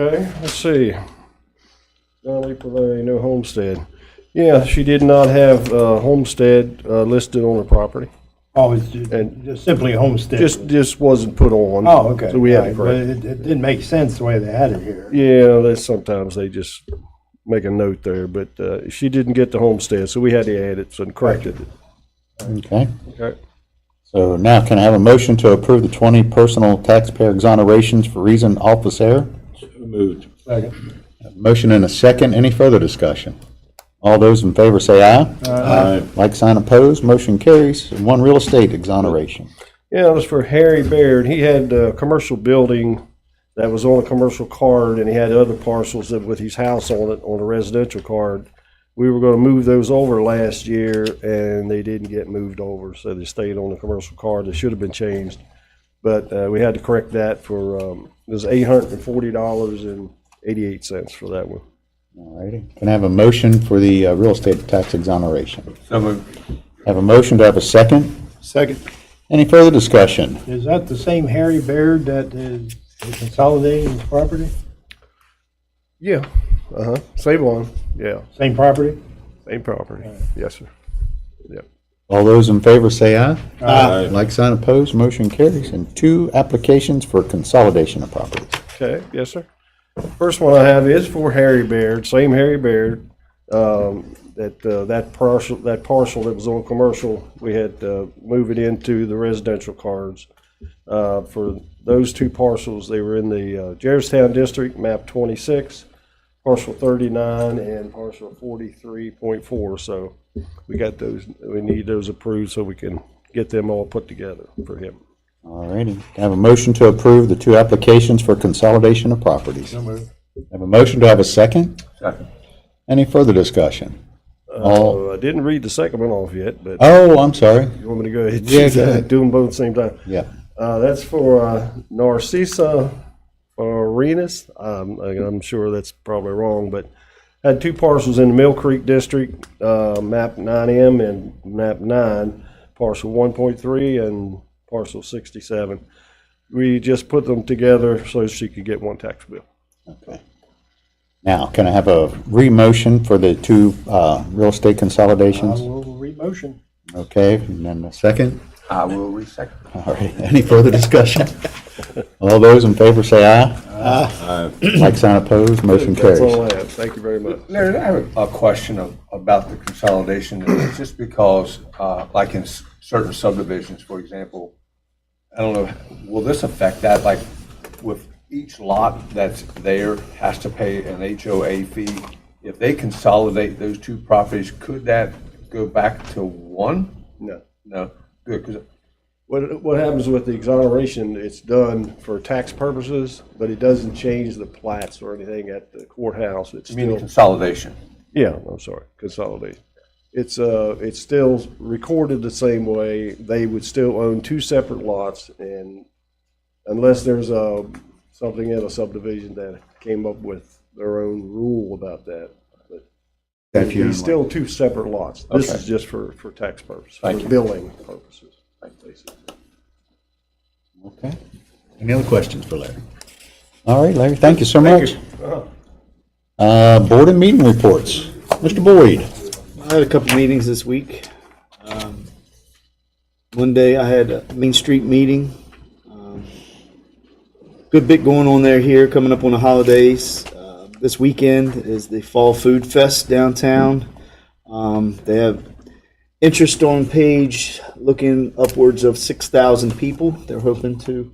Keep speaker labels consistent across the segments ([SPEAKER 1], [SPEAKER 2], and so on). [SPEAKER 1] Okay, let's see. Donnelly Pavone, no homestead. Yeah, she did not have uh, homestead uh, listed on her property.
[SPEAKER 2] Oh, it's ju-
[SPEAKER 1] And-
[SPEAKER 2] just simply homestead.
[SPEAKER 1] Just, just wasn't put on.
[SPEAKER 2] Oh, okay.
[SPEAKER 1] So we had to
[SPEAKER 2] Right,
[SPEAKER 1] correct.
[SPEAKER 2] But it, it didn't make sense the way they had it here.
[SPEAKER 1] Yeah, that's sometimes they just make a note there, but uh, she didn't get the homestead, so we had to add it and correct it.
[SPEAKER 3] Okay,
[SPEAKER 1] Okay.
[SPEAKER 3] so now can I have a motion to approve the 20 personal taxpayer exonerations for reason office error?
[SPEAKER 4] Moved.
[SPEAKER 2] Second.
[SPEAKER 3] Motion and a second. Any further discussion? All those in favor say aye.
[SPEAKER 4] Aye.
[SPEAKER 3] Like sign opposed, motion carries. And one real estate exoneration.
[SPEAKER 1] Yeah, it was for Harry Baird. He had a commercial building that was on a commercial card, and he had other parcels that with his house on it on a residential card. We were going to move those over last year, and they didn't get moved over, so they stayed on the commercial card. They should have been changed, but uh, we had to correct that for um, it was eight hundred and forty dollars and eighty-eight cents for that one.
[SPEAKER 3] All righty. Can I have a motion for the uh, real estate tax exoneration?
[SPEAKER 4] So moved.
[SPEAKER 3] Have a motion to have a second.
[SPEAKER 4] Second.
[SPEAKER 3] Any further discussion?
[SPEAKER 2] Is that the same Harry Baird that is consolidating his property?
[SPEAKER 1] Yeah, uh huh. Same one. Yeah,
[SPEAKER 2] Same property?
[SPEAKER 1] same property. Yes, sir. Yep.
[SPEAKER 3] All those in favor say aye. Aye. Like sign opposed, motion carries. And two applications for consolidation of properties.
[SPEAKER 1] Okay, yes, sir. First one I have is for Harry Baird, same Harry Baird. Um, that, uh, that parcel, that parcel that was on commercial, we had, uh, move it into the residential cards. Uh, for those two parcels, they were in the, uh, Jarrettstown District, map twenty-six, parcel thirty-nine and parcel forty-three point four, so we got those, we need those approved so we can get them all put together for him.
[SPEAKER 3] All righty. Can I have a motion to approve the two applications for consolidation of properties?
[SPEAKER 2] moved.
[SPEAKER 3] Have a motion to have a second?
[SPEAKER 4] Second.
[SPEAKER 3] Any further discussion? All,
[SPEAKER 1] Uh, I didn't read the second one off yet, but.
[SPEAKER 3] oh, I'm sorry.
[SPEAKER 1] You want me to go ahead?
[SPEAKER 3] Yeah, go ahead.
[SPEAKER 1] Do them both at the same time.
[SPEAKER 3] Yeah.
[SPEAKER 1] Uh, that's for uh, Narcissa Arenas. Um, I- I'm sure that's probably wrong, but had two parcels in the Mill Creek District, uh, map 9M and map 9, parcel 1.3 and parcel 67. We just put them together so she could get one tax bill.
[SPEAKER 3] Okay. Now, can I have a re-motion for the two uh, real estate
[SPEAKER 2] I
[SPEAKER 1] Uh,
[SPEAKER 3] consolidations?
[SPEAKER 2] will re-motion.
[SPEAKER 3] Okay, and then a second?
[SPEAKER 4] I will resecond.
[SPEAKER 3] All right, any further discussion? All those in favor say aye. Aye. Like sign opposed, motion
[SPEAKER 1] That's all
[SPEAKER 3] carries.
[SPEAKER 1] I have. Thank you very much.
[SPEAKER 4] Larry, I have a a question of- about the consolidation, and it's just because, uh, like in s- certain subdivisions, for example, I don't know, will this affect that, like with each lot that's there has to pay an HOA fee? If they consolidate those two properties, could that go back to one?
[SPEAKER 1] No.
[SPEAKER 4] No, good, 'cause
[SPEAKER 1] What, what happens with the exoneration, it's done for tax purposes, but it doesn't change the plats or anything at the courthouse. It's
[SPEAKER 4] I mean,
[SPEAKER 1] still,
[SPEAKER 4] consolidation.
[SPEAKER 1] yeah, I'm sorry, consolidation. It's, uh, it's still recorded the same way. They would still own two separate lots and unless there's a, something in a subdivision that came up with their own rule about that. But
[SPEAKER 3] If you-
[SPEAKER 1] It's still two separate lots. This
[SPEAKER 4] Okay.
[SPEAKER 1] is just for, for tax purposes,
[SPEAKER 4] Thank
[SPEAKER 1] for
[SPEAKER 4] you.
[SPEAKER 1] billing purposes, basically.
[SPEAKER 3] Okay. Any other questions for Larry? All right, Larry, thank you Uh-huh. so much. Uh, Board and meeting reports. Mr. Boyd?
[SPEAKER 5] I had a couple meetings this week. Um, One day I had a Main Street meeting. Um, Good bit going on there here, coming up on the holidays. Uh, This weekend is the Fall Food Fest downtown. Um, They have interest on page looking upwards of 6,000 people. They're hoping to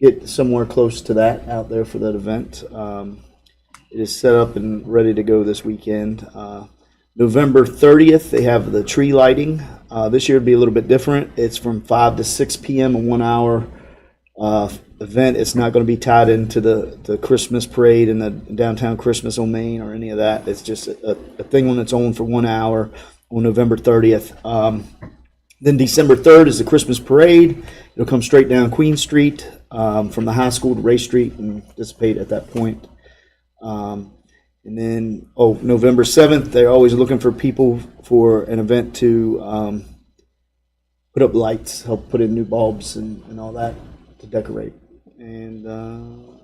[SPEAKER 5] get somewhere close to that out there for that event. Um, it is set up and ready to go this weekend. Uh, November 30th, they have the tree lighting. Uh, this year it'll be a little bit different. It's from 5 to 6 p.m., a one hour uh, event. It's not going to be tied into the, the Christmas parade and the downtown Christmas on Main or any of that. It's just a, a thing on its own for one hour on November 30th. Um, then December 3rd is the Christmas parade. It'll come straight down Queen Street um, from the high school to Ray Street and dissipate at that point. Um, and then, oh, November 7th, they're always looking for people for an event to um, put up lights, help put in new bulbs and, and all that to decorate. And uh,